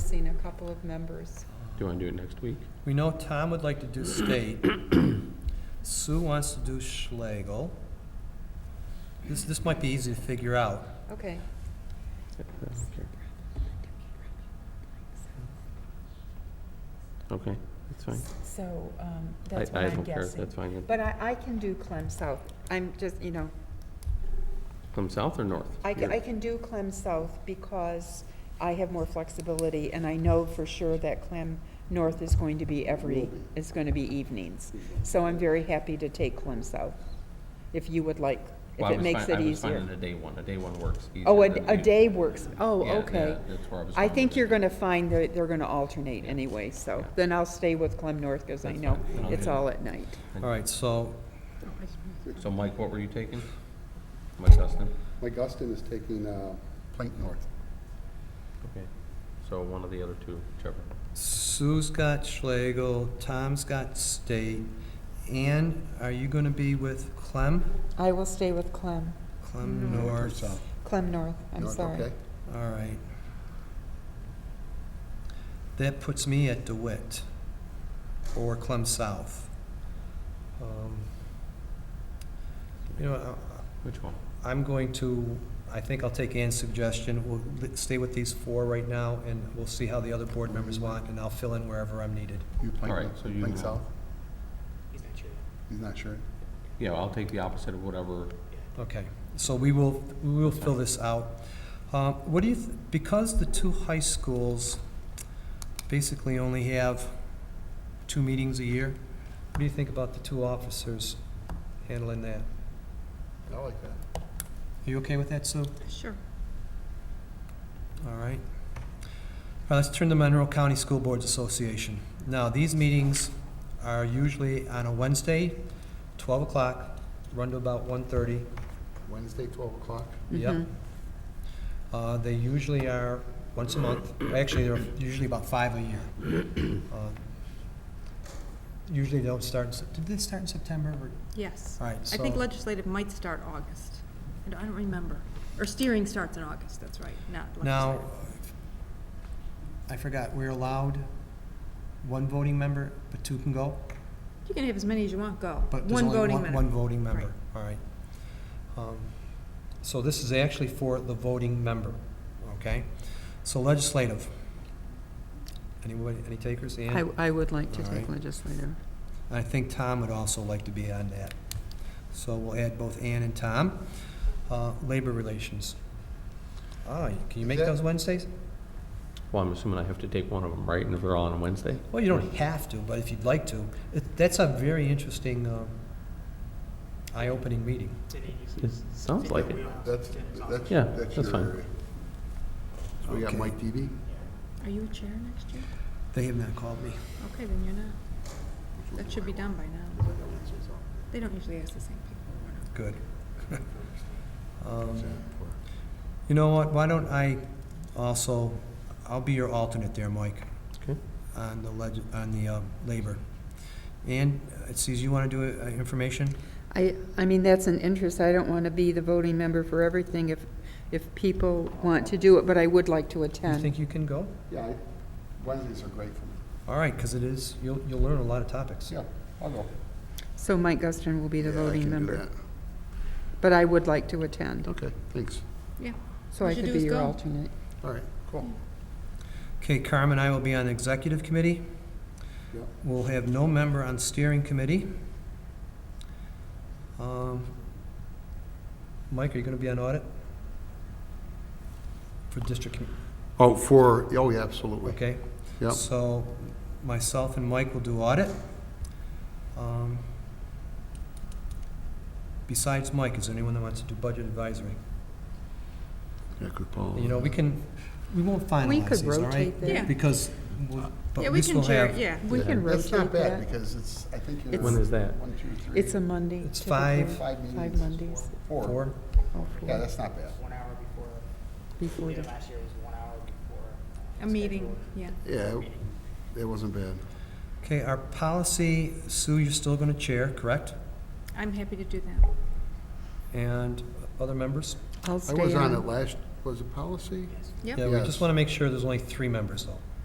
missing a couple of members. Do you want to do it next week? We know Tom would like to do state. Sue wants to do Schlegel. This, this might be easy to figure out. Okay, I don't care. Okay, that's fine. So um, I- that's what I I'm don't care, guessing. that's fine. but I, I can do Clem South. I'm just, you know, From south or north? I can, I can do Clem South because I have more flexibility and I know for sure that Clem North is going to be every, is going to be evenings. So I'm very happy to take Clem South, if you would like, if Well, I it was makes fine- it I was fine easier. on a day one, a day one works. easier Oh, a, than a the- day works, oh, Yeah, okay. yeah, that's where was I going think with you're it. gonna find that they're gonna alternate anyway, so, then I'll stay with Clem North, because I That's know fine. I'll it's do that. all at night. All right, so So Mike, what were you taking? Mike Dustin? Mike Austin is taking uh, Plank North. Okay. So one of the other two, whichever. Sue's got Schlegel, Tom's got state. Ann, are you gonna be with Clem? I will stay with Clem, Clem North? South. Clem North, I'm North, sorry. okay. All right. That puts me at DeWitt or Clem South. Um, You know, I- Which one? I'm going to, I think I'll take Ann's suggestion, we'll li- stay with these four right now, and we'll see how the other board members want, and I'll fill in wherever I'm needed. You Plank All right, North, so you Plank know. South? He's not sure. Yeah, I'll take the opposite of whatever. Okay, so we will, we will fill this out. Uh, What do you, th- because the two high schools basically only have two meetings a year, what do you think about the two officers handling that? He's not sure. I like that. Are you okay with that, Sue? Sure. All right. All right, let's turn to Monroe County School Boards Association. Now, these meetings are usually on a Wednesday, 12 o'clock, run to about 1:30. Wednesday, 12 o'clock. Yep. Mm-hmm. Uh, They usually are once a month. Actually, they're usually about five a year. Uh, Usually they don't start, in Sep- did they start in September? or- Yes. All right, I think so- legislative might start August. I don't- I don't remember. Or steering starts in August, that's right, not Now, legislative. I forgot, we're allowed one voting member, but two can go? You can have as many as you want go. But there's One only voting one, minute. one voting member, Right. all right. Um, So this is actually for the voting member, okay? So legislative. Anybody, any takers? Ann? I, I would like to All take right. legislative. I think Tom would also like to be on that. So we'll add both Ann and Tom. Uh, Labor relations. Ah, can you make that- those Wednesdays? Well, I'm assuming I have to take one of them, right? And if they're all on a Wednesday? Well, you don't have to, but if you'd like to. It- That's a very interesting, um, eye-opening meeting. It sounds like it. That's, that's. Yeah, that's fine. your- So we got Okay. Mike DB? Are you a chair next year? They have not called me. Okay, then you're not. That should be done by now. They don't usually ask the same people. Good. Um, You know what, why don't I also, I'll be your alternate there, Mike, Okay. on the leg, on the uh, labor. And, it sees you want to do uh, information? I, I mean, that's an interest, I don't want to be the voting member for everything if, if people want to do it, but I would like to You attend. think you can go? Yeah, I- Wednesdays are great for me. All right, because it is, you'll, you'll learn a lot of topics. Yeah, I'll go. So Mike Guston will be the Yeah, I can voting do member, that. but I would like to attend, Okay, thanks. Yeah. so What I you could do be is your go. alternate. All right, cool. Okay, Carmen and I will be on the executive committee. Yep. We'll have no member on steering committee. Um, Mike, are you going to be on audit? For district, commi- Oh, for, oh, yeah, absolutely. okay? Yep. So myself and Mike will do audit. Um, Besides Mike, is there anyone that wants to do budget advisory? Yeah, good call. You know, we can, we won't We finalize could these, all right? rotate Yeah. that. Because, we- Yeah, but we we can still chair, have, yeah. We can That's rotate not bad, that. because it's, I think you're. When is that? One, two, three. It's a Monday. It's typically. five- Five meetings. Five Mondays. Four. four, Oh, Yeah, four, that's not bad. one hour before, before yeah, the, last year was one hour before. A meeting, yeah. Yeah, it- it wasn't bad. okay, our policy, Sue, you're still going to chair, correct? I'm happy to do that. And other members? I'll I stay was on it on. last, was it policy? Yep. Yeah, we Yes. just want to make sure there's only three members, though.